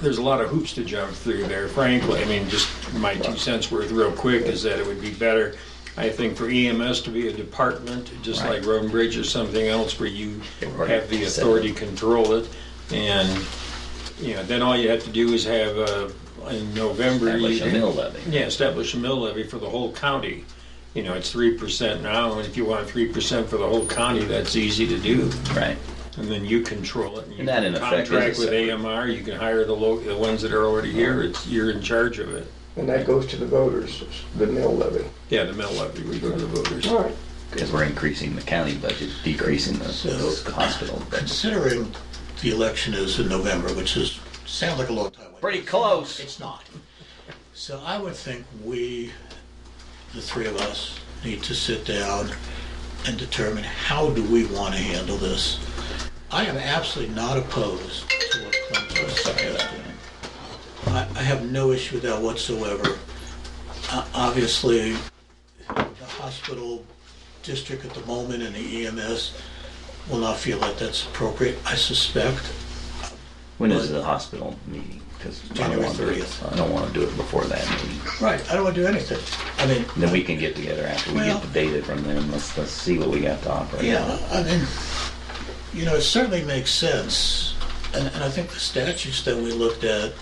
There's a lot of hoops to jump through there, frankly. I mean, just my two cents worth real quick is that it would be better, I think, for EMS to be a department, just Right. like Road and Bridge or something else where you Right. have the authority to control it. And, you know, then all you have to do is have, uh, in November. you Establish a can- mill levy. Yeah, establish a mill levy for the whole county. You know, it's three percent now, and if you want three percent for the whole county, that's easy to do. Right. And then you control it. you And that, in can effect, is a Contract with separate- AMR, you can hire the lo, the ones that are already here, it's, you're in charge of it. And that goes to the voters, the mill levy. Yeah, the mill levy, we go to the voters. All right. Because we're increasing the county budget, decreasing the So- hospital budget. Considering the election is in November, which is, sounds like a long time away. Pretty close. It's not. So I would think we, the three of us, need to sit down and determine how do we want to handle this. I am absolutely not opposed to what Clint was suggesting. I, I have no issue with that whatsoever. Uh, Obviously, the hospital district at the moment and the E EMS will not feel that that's appropriate, I suspect. When is the hospital meeting? Because I don't January want to do it, 30th. I don't want to do it before that meeting. Right. I don't want to do anything. I mean, Then we can get together after we Well- get the data from them. Let's, let's see what we got to offer. yeah, I mean, you know, it certainly makes sense. And, and I think the statutes that we looked at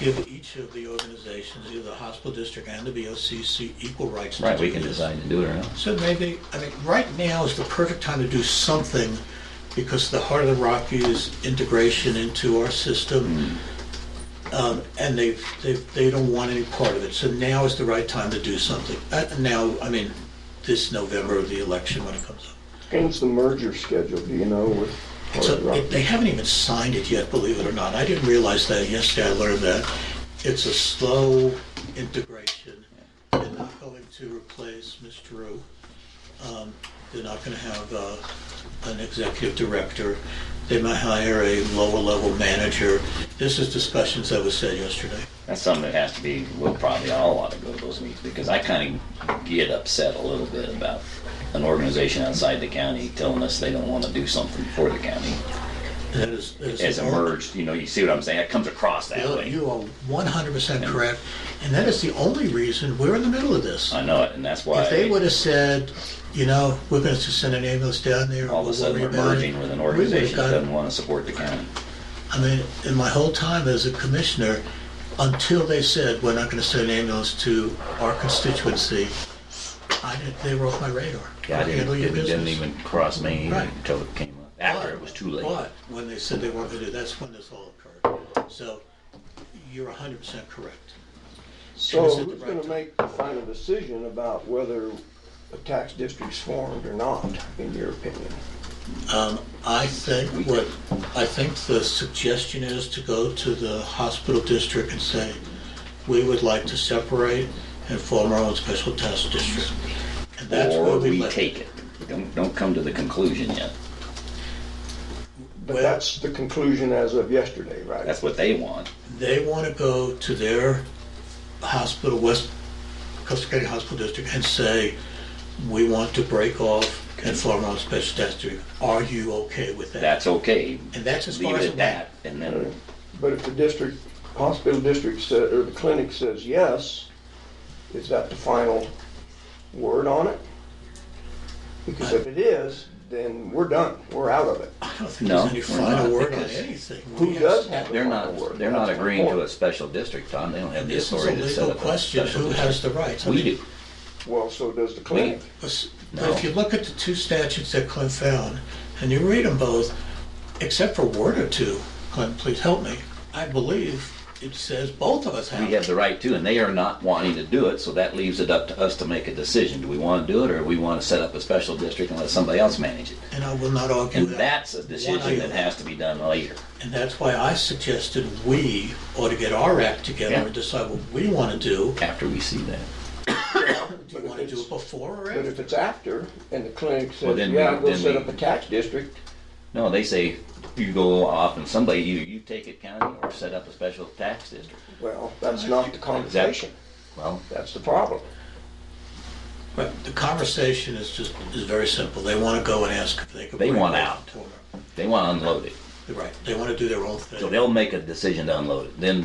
give each of the organizations, either the hospital district and the BOCC, equal rights to do Right, we can this. decide to do it or not. So maybe, I mean, right now is the perfect time to do something because the Heart of the Rockies integration into our system, um, and they've, they've, they don't want any part of it. So now is the right time to do something. Uh, now, I mean, this November, the election when it comes up. When's the merger scheduled, do you know, with So Hard Rock? they haven't even signed it yet, believe it or not. I didn't realize that yesterday. I learned that it's a slow integration. They're not going to replace Ms. Drew. Um, They're not going to have uh, an executive director. They might hire a lower-level manager. This is discussions that was said yesterday. That's something that has to be, we'll probably all ought to go to those meetings because I kind of get upset a little bit about an organization outside the county telling us they don't want to do something for the county. That is- that is- As emerged, you know, you see what I'm saying? It comes across that Yeah, way. You are 100% correct, and that is the only reason we're in the middle of this. I know it, and that's why If they would have said, you know, we're going to send an ambulance down there. all of a we'll sudden worry we're about it," merging with an we would've organization that got- doesn't want to support the county. I mean, in my whole time as a commissioner, until they said, we're not going to send an ambulance to our constituency, I didn't, they were off my radar. Yeah, I didn't, Handle your it didn't business. even cross me Right. until it came up, after it was too late. But when they said they weren't going to do, that's when this all occurred. So you're 100% correct. So Is it the who's gonna right make the final decision about whether a tax district's formed or not, in your opinion? Um, I think what, I think the suggestion is to go to the hospital district and say, we would like to separate and form our own special task district. And that's where Or we we left. take it. Don't, don't come to the conclusion yet. But Well- that's the conclusion as of yesterday, right? That's what they want. They want to go to their hospital, West Coast County Hospital District, and say, we want to break off and form our own special task district. Are you okay with that? That's okay. And that's as Leave far as it it at that, and then, But if the district, hospital district said, or the clinic says yes, is that the final word on it? Because if it is, then we're done, we're out of it. I don't think No, there's any we're not, final word on because- anything. Who We does have- have the they're final word? not, they're not That's my agreeing to point. a special district, Tom. They don't have the This is a authority to set legal up a question, special who has district. the rights? I We mean, do. Well, so does the clinic. But No. if you look at the two statutes that Clint found, and you read them both, except for a word or two, Clint, please help me, I believe it says both of us have. We have the right to, and they are not wanting to do it, so that leaves it up to us to make a decision. Do we want to do it, or we want to set up a special district and let somebody else manage it? And I will not argue And that. that's a One decision iota. that has to be done later. And that's why I suggested we ought to get our act together Yeah. and decide what we want to do. after we see that. Do you want to do it before or But after? if it's after, and the clinic Well, says, then yeah, we- I'll go then set we- up a tax district, No, they say you go off and somebody either you take it county or set up a special tax district. well, that's not the conversation. Well, That's the problem. But the conversation is just, is very simple. They want to go and ask if they could. They bring want it out. forward. they want to unload it. Right, they want to do their own thing. So they'll make a decision to unload it, then